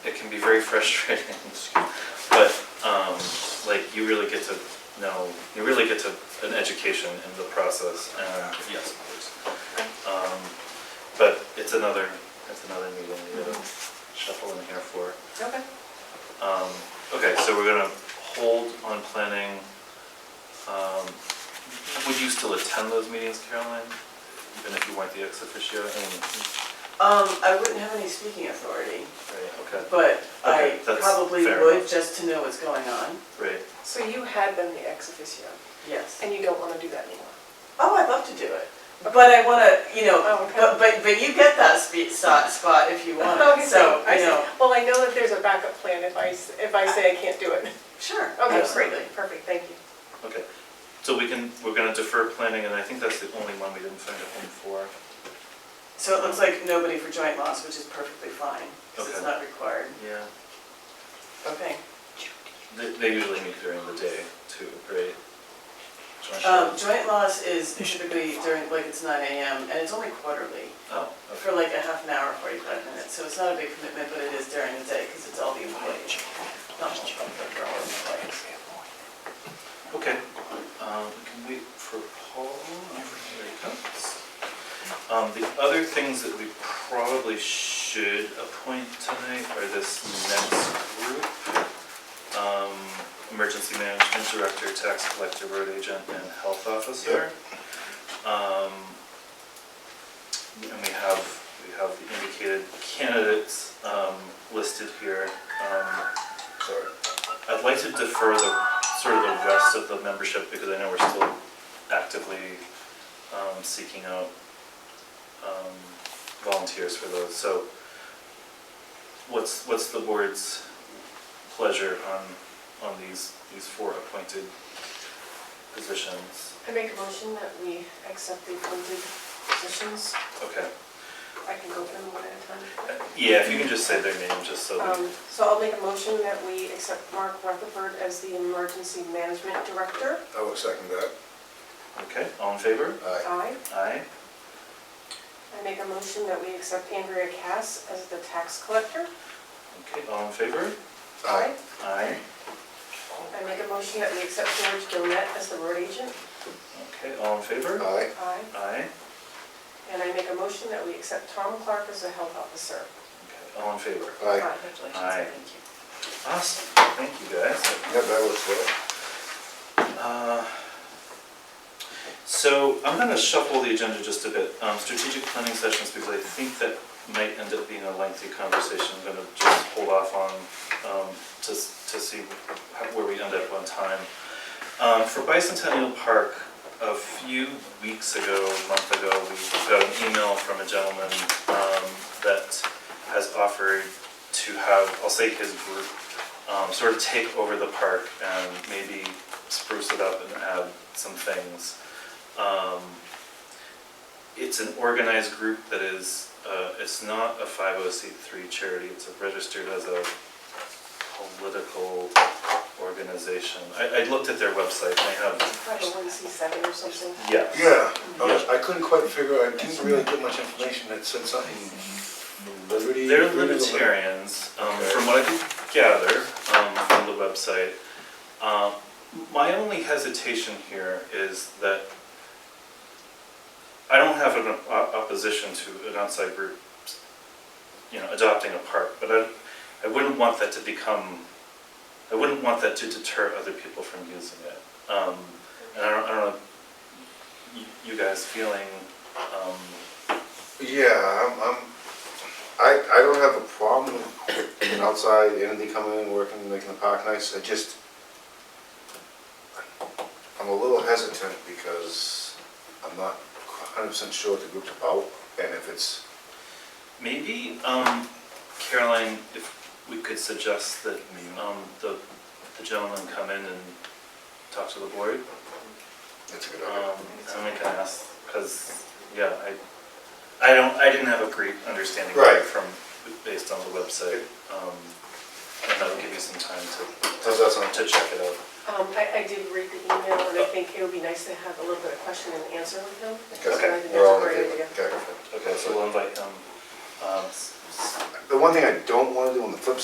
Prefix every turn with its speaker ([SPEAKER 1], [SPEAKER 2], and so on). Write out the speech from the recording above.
[SPEAKER 1] very frustrating. But, um, like, you really get to know, you really get to, an education in the process, and, yes, of course. Um, But it's another, it's another meeting we gotta shuffle in here for.
[SPEAKER 2] Okay.
[SPEAKER 1] Um, Okay, so we're gonna hold on planning. Um, Would you still attend those meetings, Caroline? Even if you weren't the ex officio? Mm,
[SPEAKER 2] Um, I wouldn't have any speaking authority,
[SPEAKER 1] Right, okay,
[SPEAKER 2] but
[SPEAKER 1] Okay,
[SPEAKER 2] I
[SPEAKER 1] that's
[SPEAKER 2] probably
[SPEAKER 1] fair
[SPEAKER 2] would
[SPEAKER 1] enough.
[SPEAKER 2] just to know what's going on,
[SPEAKER 1] right.
[SPEAKER 3] So you had been the ex officio,
[SPEAKER 2] yes.
[SPEAKER 3] and you don't want to do that anymore?
[SPEAKER 2] Oh, I'd love to do it, but I wanna, you
[SPEAKER 3] Oh,
[SPEAKER 2] know,
[SPEAKER 3] okay.
[SPEAKER 2] but, but, but you get that spe- spot, spot if you want,
[SPEAKER 3] Okay,
[SPEAKER 2] so,
[SPEAKER 3] I
[SPEAKER 2] you
[SPEAKER 3] see.
[SPEAKER 2] know.
[SPEAKER 3] Well, I know that there's a backup plan if I, s- if I say I can't do it.
[SPEAKER 2] Sure,
[SPEAKER 3] Okay, great,
[SPEAKER 2] absolutely.
[SPEAKER 3] perfect, thank you.
[SPEAKER 1] Okay, so we can, we're gonna defer planning, and I think that's the only one we didn't find a home for.
[SPEAKER 2] So it looks like nobody for joint loss, which is perfectly fine, because it's
[SPEAKER 1] Okay.
[SPEAKER 2] not required.
[SPEAKER 1] Yeah.
[SPEAKER 2] Okay.
[SPEAKER 1] They, they usually meet during the day too, right? Joint
[SPEAKER 2] Um,
[SPEAKER 1] sure.
[SPEAKER 2] joint loss is typically during, like, it's nine AM, and it's only quarterly,
[SPEAKER 1] Oh, okay,
[SPEAKER 2] for like a half an hour, forty-five minutes, so it's not a big commitment, but it is during the day, because it's all the employees. Not all of them, but all the employees.
[SPEAKER 1] okay. Um, we can wait for Paul, there he comes. Um, the other things that we probably should appoint tonight are this next group. Um, emergency management director, tax collector, road agent, and health officer. Um, and we have, we have the indicated candidates, um, listed here. Um, I'd like to defer the, sort of the rest of the membership, because I know we're still actively um, seeking out um, volunteers for those. So what's, what's the board's pleasure on, on these, these four appointed positions?
[SPEAKER 3] I make a motion that we accept the appointed positions.
[SPEAKER 1] Okay,
[SPEAKER 3] I can go through them one at a time.
[SPEAKER 1] yeah, if you can just say their name, just so that,
[SPEAKER 3] Um, So I'll make a motion that we accept Mark Rutherford as the Emergency Management Director.
[SPEAKER 4] I will second that.
[SPEAKER 1] okay, all in favor?
[SPEAKER 4] Aye.
[SPEAKER 3] Aye.
[SPEAKER 1] Aye,
[SPEAKER 3] I make a motion that we accept Andrea Cass as the Tax Collector.
[SPEAKER 1] okay, all in favor? Aye,
[SPEAKER 3] I make a motion that we accept George Gilmet as the Road Agent.
[SPEAKER 1] okay, all in favor?
[SPEAKER 4] Aye.
[SPEAKER 3] Aye.
[SPEAKER 1] Aye,
[SPEAKER 3] And I make a motion that we accept Tom Clark as a Health Officer.
[SPEAKER 1] okay, all in favor?
[SPEAKER 4] Aye.
[SPEAKER 3] Congratulations,
[SPEAKER 1] Aye.
[SPEAKER 3] thank you.
[SPEAKER 1] Awesome, thank you guys.
[SPEAKER 4] Yeah, that was it.
[SPEAKER 1] Uh, So I'm gonna shuffle the agenda just a bit, um, strategic planning sessions, because I think that might end up being a lengthy conversation. I'm gonna just hold off on, um, to, s- to see how- where we end up on time. Um, for Bicentennial Park, a few weeks ago, a month ago, we got an email from a gentleman, um, that has offered to have, I'll say his group, um, sort of take over the park and maybe spruce it up and add some things. Um, It's an organized group that is, uh, it's not a 501c3 charity, it's registered as a political organization. I, I looked at their website, they have,
[SPEAKER 3] Probably one C seven or something.
[SPEAKER 1] yes.
[SPEAKER 4] Yeah, I was- I couldn't quite figure, I didn't really get much information, it said something. liberty-
[SPEAKER 1] They're
[SPEAKER 4] liberty-
[SPEAKER 1] libertarians, um,
[SPEAKER 4] Okay.
[SPEAKER 1] from what I could gather, um, from the website. Um, my only hesitation here is that I don't have an op- opposition to an outside group, you know, adopting a park, but I, I wouldn't want that to become, I wouldn't want that to deter other people from using it. Um, and I don't, I don't know, you, you guys feeling, um,
[SPEAKER 4] Yeah, I'm, I'm, I, I don't have a problem with an outside entity coming in, working, making the park nice, I just, I'm a little hesitant because I'm not hundred percent sure what the group's about, and if it's,
[SPEAKER 1] Maybe, um, Caroline, if we could suggest that, um, the, the gentleman come in and talk to the board.
[SPEAKER 4] that's a good idea.
[SPEAKER 1] Um, and we can ask, because, yeah, I, I don't, I didn't have a great understanding of it
[SPEAKER 4] Right.
[SPEAKER 1] from, based on the website. Um, and that'll give you some time to,
[SPEAKER 4] How's that sound?
[SPEAKER 1] to check it out.
[SPEAKER 3] Um, I, I did read the email and I think it would be nice to have a little bit of question and answer with him. So I think that's
[SPEAKER 4] We're all
[SPEAKER 3] a great
[SPEAKER 4] in agreement.
[SPEAKER 3] idea.
[SPEAKER 4] Okay.
[SPEAKER 1] Okay, so we'll invite him, um, s- s-
[SPEAKER 4] The one thing I don't wanna do on the flip